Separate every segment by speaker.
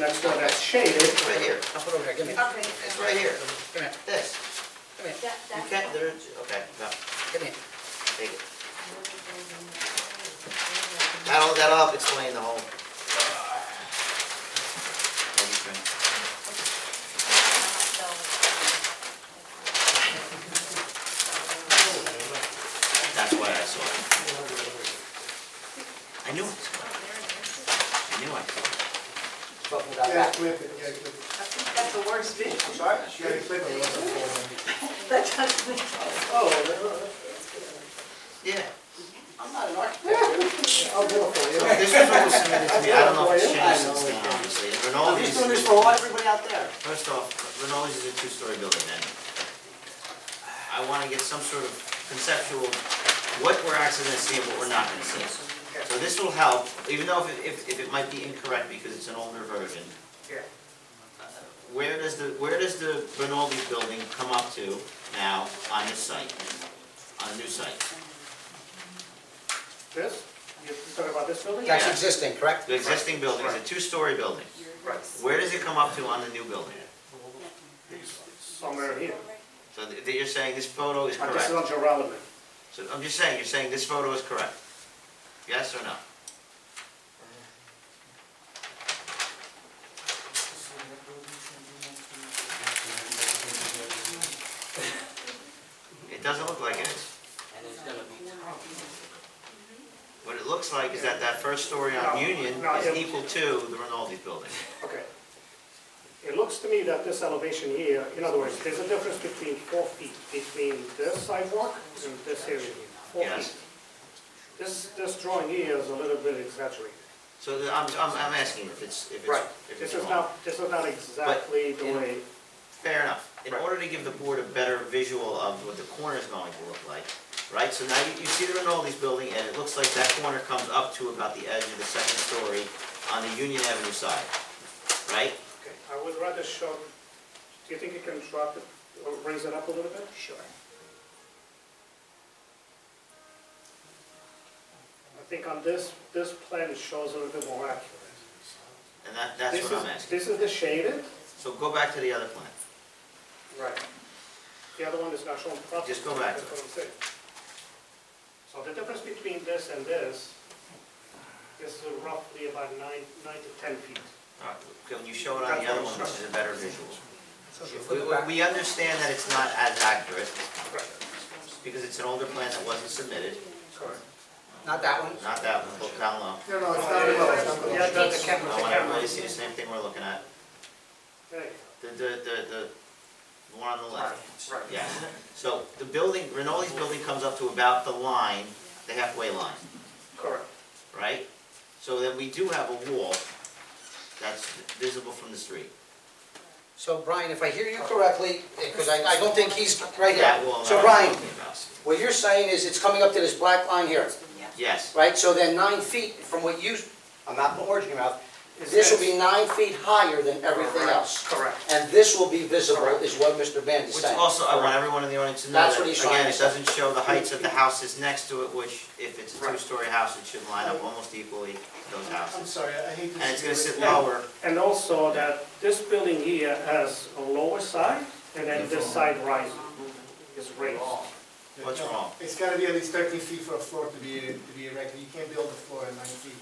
Speaker 1: next door that's shaded.
Speaker 2: It's right here,
Speaker 3: I'll put it over here, give me,
Speaker 2: okay, it's right here,
Speaker 3: come here,
Speaker 2: this,
Speaker 3: come here,
Speaker 4: That,
Speaker 2: you
Speaker 4: that's.
Speaker 2: can't, there's, okay, no,
Speaker 3: come here.
Speaker 2: take it.
Speaker 3: Mm-hmm.
Speaker 2: That'll, that'll help explain the whole. That's why I saw it. I knew it, I knew I saw
Speaker 3: But without
Speaker 1: Yeah,
Speaker 3: that,
Speaker 1: clip it, yeah, clip it.
Speaker 4: That's the worst vision.
Speaker 1: I'm sorry? You gotta clip it, what's it
Speaker 4: That doesn't make.
Speaker 1: for? Oh,
Speaker 2: it. Yeah.
Speaker 3: I'm not an architect.
Speaker 1: I'll do it for you.
Speaker 2: This was always submitted to me, I don't know if it's changed since then, obviously, and
Speaker 3: I'm
Speaker 2: Rinaldi's.
Speaker 3: just doing this for all, everybody out there.
Speaker 2: First off, Rinaldi's is a two-story building, and I wanna get some sort of conceptual, what we're actually gonna see and what we're not gonna see. So this will help, even though if, it- if, if it might be incorrect because it's an older version.
Speaker 1: oh.
Speaker 3: Yeah.
Speaker 2: Where does the, where does the Rinaldi building come up to now on this site, on the new site?
Speaker 1: This? You're talking about this building?
Speaker 3: That's
Speaker 2: Yeah.
Speaker 3: existing, correct?
Speaker 2: The existing building is a two-story building, where does it come up to on the new building?
Speaker 1: Somewhere here.
Speaker 2: So th- that you're saying this photo is
Speaker 1: Uh, This
Speaker 2: correct?
Speaker 1: is not your relevant.
Speaker 2: So I'm just saying, you're saying this photo is correct? Yes or no? It doesn't look like it is. What it looks like is that that first story on
Speaker 1: No,
Speaker 2: Union
Speaker 1: no,
Speaker 2: is
Speaker 1: it-
Speaker 2: equal to the Rinaldi building.
Speaker 1: Okay. It looks to me that this elevation here, in other words, there's a difference between four feet between this sidewalk and this area here. Four
Speaker 2: Yes.
Speaker 1: feet. This, this drawing here is a little bit exaggerated.
Speaker 2: So the- I'm, I'm, I'm asking if it's, if
Speaker 1: Right.
Speaker 2: it's, if
Speaker 1: This is
Speaker 2: it's wrong.
Speaker 1: not, this is not exactly the
Speaker 2: in-
Speaker 1: way,
Speaker 2: Fair enough. In
Speaker 1: Right.
Speaker 2: order to give the board a better visual of what the corner is going to look like, right? So now you, you see the Rinaldi's building, and it looks like that corner comes up to about the edge of the second story on the Union Avenue side, right?
Speaker 1: Okay, I would rather show, do you think you can drop it, or raise it up a little bit?
Speaker 2: Sure.
Speaker 1: I think on this, this plan it shows a little bit more accurate.
Speaker 2: And that, that's
Speaker 1: This
Speaker 2: what I'm
Speaker 1: is-
Speaker 2: asking.
Speaker 1: This is the shaded?
Speaker 2: So go back to the other plan.
Speaker 1: Right. The other one is not shown properly.
Speaker 2: Just go back to
Speaker 1: That's what I'm saying. So the difference between this and this is roughly about nine, nine to 10 feet.
Speaker 2: All right, Can you show it on the other one, which is a better visual? We,
Speaker 3: Back.
Speaker 2: we- we understand that it's not as accurate,
Speaker 1: Right.
Speaker 2: because it's an older plan that wasn't submitted,
Speaker 1: Correct.
Speaker 3: Not that one?
Speaker 2: not that one, look down low.
Speaker 5: No, no, it's not at all, it's not
Speaker 1: Yeah,
Speaker 5: at all.
Speaker 1: that's the camera,
Speaker 2: I
Speaker 1: the
Speaker 2: want everybody
Speaker 1: camera.
Speaker 2: to see the same thing we're looking at.
Speaker 1: Okay,
Speaker 2: The, the, the, the- the one on the
Speaker 1: Right,
Speaker 2: left,
Speaker 1: right.
Speaker 2: yeah. So the building, Rinaldi's building comes up to about the line, the halfway line,
Speaker 1: Correct.
Speaker 2: right? So then we do have a wall that's visible from the street.
Speaker 3: So Brian, if I hear you correctly, because I, I don't think he's right here.
Speaker 2: That wall that
Speaker 3: So
Speaker 2: I'm
Speaker 3: Brian,
Speaker 2: talking about.
Speaker 3: what you're saying is it's coming up to this black line here,
Speaker 2: Yes,
Speaker 3: right? So then nine feet from what you, I'm not putting words in your mouth,
Speaker 1: Is
Speaker 3: this will be nine feet higher than everything else.
Speaker 1: Correct.
Speaker 3: And this will be visible, is what Mr. Band is
Speaker 2: which
Speaker 3: saying.
Speaker 2: also, I want everyone in the audience to know
Speaker 3: That's
Speaker 2: that,
Speaker 3: what he's trying
Speaker 2: again,
Speaker 3: to
Speaker 2: it
Speaker 3: say.
Speaker 2: doesn't show the heights of the houses next to it, which if it's a
Speaker 1: Right.
Speaker 2: two-story house, it should line up almost equally to those
Speaker 5: I'm
Speaker 2: houses.
Speaker 5: sorry, I hate to.
Speaker 2: And it's gonna
Speaker 5: see
Speaker 2: sit
Speaker 5: you.
Speaker 2: lower,
Speaker 1: And also that this building here has a lower side, and then this side rises, is raised.
Speaker 5: Yeah,
Speaker 2: What's
Speaker 5: no,
Speaker 2: wrong?
Speaker 5: It's gotta be at least thirteen feet for a floor to be, to be erected, you can't build a floor at nine feet.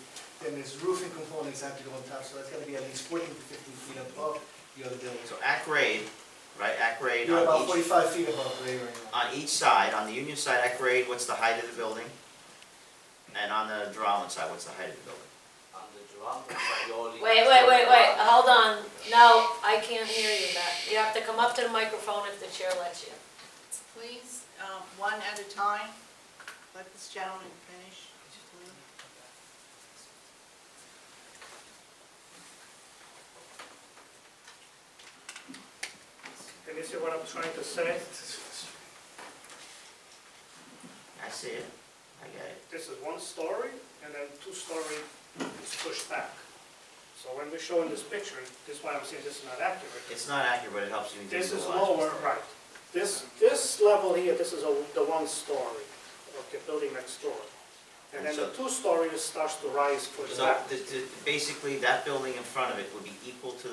Speaker 5: Then there's roofing components have to go on top, so that's gotta be at least fourteen to fifteen feet above the other building.
Speaker 2: so at grade, right, at grade
Speaker 5: You're
Speaker 2: on
Speaker 5: about
Speaker 2: each
Speaker 5: forty-five feet above grade right now.
Speaker 2: on each side, on the Union side at grade, what's the height of the building? And on the Drowan side, what's the height of the building?
Speaker 6: on the drum, by all the-
Speaker 4: Wait, wait, wait, wait, hold on. No, I can't hear you back. You have to come up to the microphone if the chair lets you.
Speaker 7: Please, um, one at a time, let this gentleman finish.
Speaker 1: Can you see what I'm trying to say?
Speaker 2: I see it, I get it.
Speaker 1: This is one story, and then two story is pushed back. So when we show in this picture, this is why I'm saying this is not accurate.
Speaker 2: It's not accurate, but it helps you visualize.
Speaker 1: This is lower, right. This, this level here, this is a- the one story of the building next door. And then the two stories starts to rise for
Speaker 2: So
Speaker 1: that.
Speaker 2: the- the- basically, that building in front of it would be equal to the